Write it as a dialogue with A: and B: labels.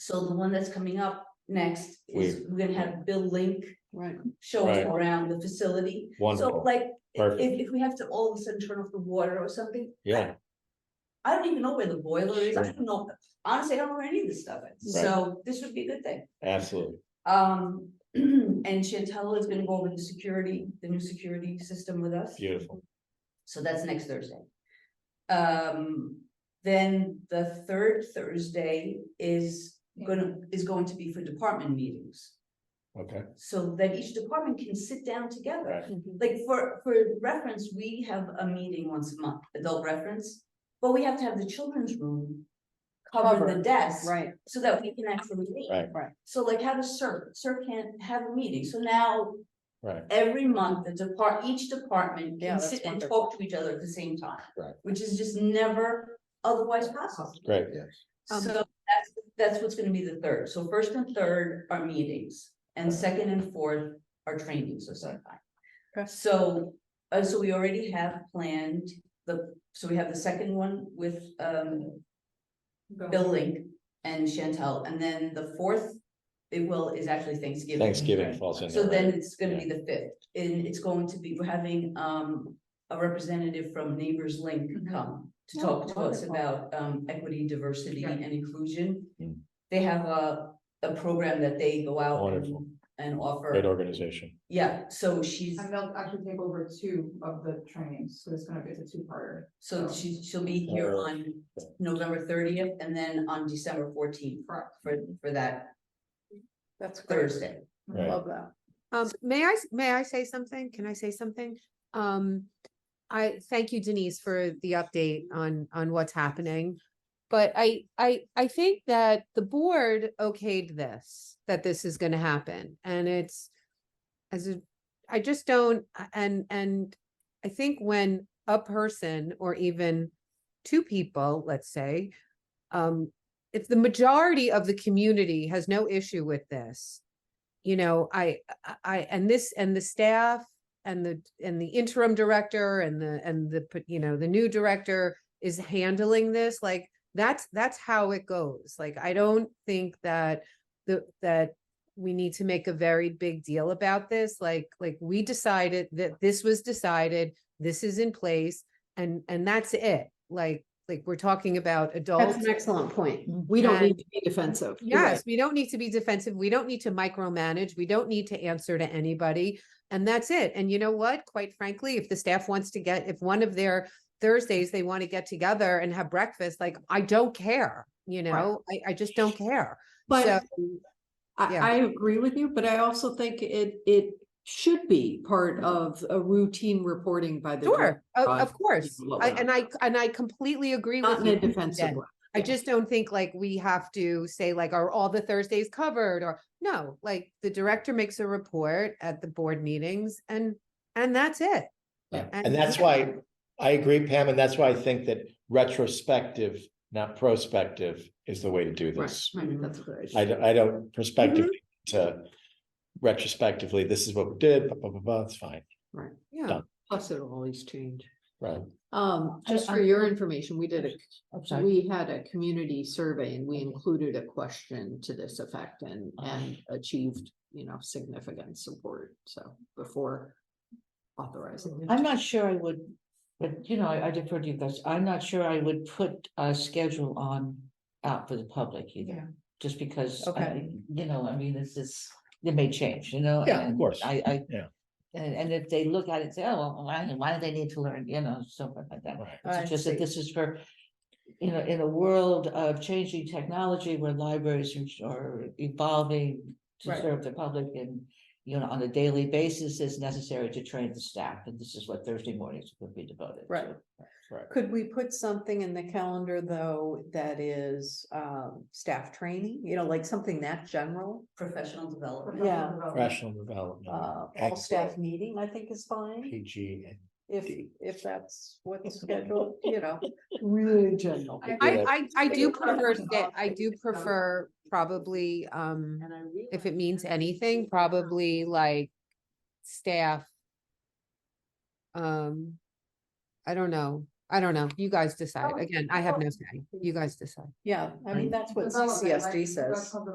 A: So the one that's coming up next is we're gonna have Bill Link
B: Right.
A: show us
C: Right.
A: around the facility. So
C: Wonderful,
A: like, if,
C: Perfect.
A: if we have to all of a sudden turn off the water or something.
C: yeah,
A: I don't even know where the boiler is. I
C: Sure.
A: don't know. Honestly, I don't know where any of this stuff is.
C: Right.
A: So this would be a good thing.
C: absolutely,
A: Um, and Chantel is gonna go over the security, the new security system with us.
C: beautiful,
A: So that's next Thursday. Um, then the third Thursday is gonna, is going to be for department meetings.
C: okay,
A: So that each department can sit down together.
C: Right.
A: Like for, for reference, we have a meeting once a month, adult reference, but we have to have the children's room. Cover the
B: Covered,
A: desk.
B: Right,
A: So that we can actually meet.
C: Right.
B: Right.
A: So like how does CERC, CERC can't have a meeting, so now
C: right,
A: every month, the depart, each department
B: Yeah,
A: can
B: that's
A: sit and
B: wonderful.
A: talk to each other at the same time.
C: Right.
A: Which is just never otherwise possible.
C: great,
B: Um,
A: So that's, that's what's gonna be the third. So first and third are meetings and second and fourth are trainings of some
B: Okay.
A: kind. So, uh, so we already have planned the, so we have the second one with, um, Bill Link and Chantel, and then the fourth, it will, is actually Thanksgiving.
C: Thanksgiving falls in
A: So
C: there,
A: then
C: right?
A: it's gonna be the fifth, and it's going to be, we're having, um, a representative from Neighbors Link
B: Mhm.
A: come to
B: Oh,
A: talk to us
B: wonderful.
A: about, um, equity, diversity
B: Right.
A: and inclusion.
C: Mm.
A: They have a, a program that they go out and-
C: Wonderful.
A: and
C: great
A: offer,
C: organization,
A: yeah, so she's,
D: And they'll actually take over two of the trainings, so it's gonna be a two-parter.
A: so she, she'll be here
C: Uh,
A: on November thirtieth and then on December fourteenth
D: Correct.
A: for, for that
B: that's great,
A: Thursday.
C: right,
B: love that.
E: Um, may I, s- may I say something? Can I say something? Um, I thank you Denise for the update on, on what's happening. But I, I, I think that the board okayed this, that this is gonna happen and it's. As a, I just don't, a- and, and I think when a person or even two people, let's say. Um, if the majority of the community has no issue with this you know, I, I- I, and this, and the staff and the, and the interim director and the, and the, p- you know, the new director is handling this, like, that's, that's how it goes. Like, I don't think that the, that we need to make a very big deal about this, like, like, we decided that this was decided, this is in place, and, and that's it. Like, like, we're talking about adults.
B: That's an excellent point. We don't need
E: And-
B: to be defensive. You're right.
E: Yes, we don't need to be defensive. We don't need to micromanage. We don't need to answer to anybody. And that's it. And you know what? Quite frankly, if the staff wants to get, if one of their Thursdays they want to get together and have breakfast, like I don't care, you know, I, I just don't care. So,
B: But I,
E: yeah.
B: I agree with you, but I also think it, it should be part of a routine reporting by the.
E: sure,
B: director,
E: of,
B: uh,
E: of course.
B: people
E: I,
B: about
E: and I, and I completely agree
B: Not in
E: with
B: a
E: you.
B: defensive
E: Jen.
B: way.
E: I
B: Yeah.
E: just don't think like we have to say like, are all the Thursdays covered or no, like the director makes a report at the board meetings and, and that's it.
C: Yeah.
E: And-
C: and that's why, I agree, Pam, and that's why I think that retrospective, not prospective, is the way to do
B: Right,
C: this.
B: right, that's a good.
C: I
B: idea.
C: don't, I don't prospectively to retrospectively, this is what we did, blah, blah, blah, blah, it's fine,
E: Yeah.
C: done.
B: Plus it'll always change.
C: right?
B: Um,
D: I-
B: just for
D: I-
B: your information, we did a
D: I'm
B: We had a community survey and we included a question to this effect and,
D: Uh,
B: and achieved, you know, significant support, so before authorizing. it.
D: I'm not sure I would, but you know, I I defer to you guys, I'm not sure I would put a schedule on out for the public either. Just because, I-
E: Okay.
D: you know, I mean, this is, it may change, you know?
C: Yeah, of
D: and
C: course.
D: I, I.
C: Yeah.
D: And, and if they look at it, and say, oh, well, why, why do they need to learn, you know, something like that.
C: Right,
D: It's
E: I
D: just
E: see.
D: that this is for, you know, in a world of changing technology where libraries are- are evolving to
E: Right.
D: serve the public and, you know, on a daily basis, it's necessary to train the staff, and this is what Thursday mornings would be devoted
B: Right.
D: to.
C: right,
B: Could we put something in the calendar, though, that is, um, staff training, you know, like something that general?
A: Professional development.
B: Yeah.
C: rational development.
B: Uh, all
C: Excellent.
B: staff meeting, I think is fine,
C: PG and
B: if, if that's what's scheduled, you know, really general.
C: Yeah.
E: I, I, I do
B: Figure out
E: prefer,
B: the
E: sta- I do
B: topic.
E: prefer probably, um,
B: And I
E: if
B: realize
E: it means
B: that
E: anything,
B: it's-
E: probably like staff. Um, I don't know, I don't know. You guys decide.
F: Oh,
E: Again, I have
F: oh.
E: no say. You guys decide.
B: Yeah, I mean, that's what
F: Development, right?
B: CCSD says.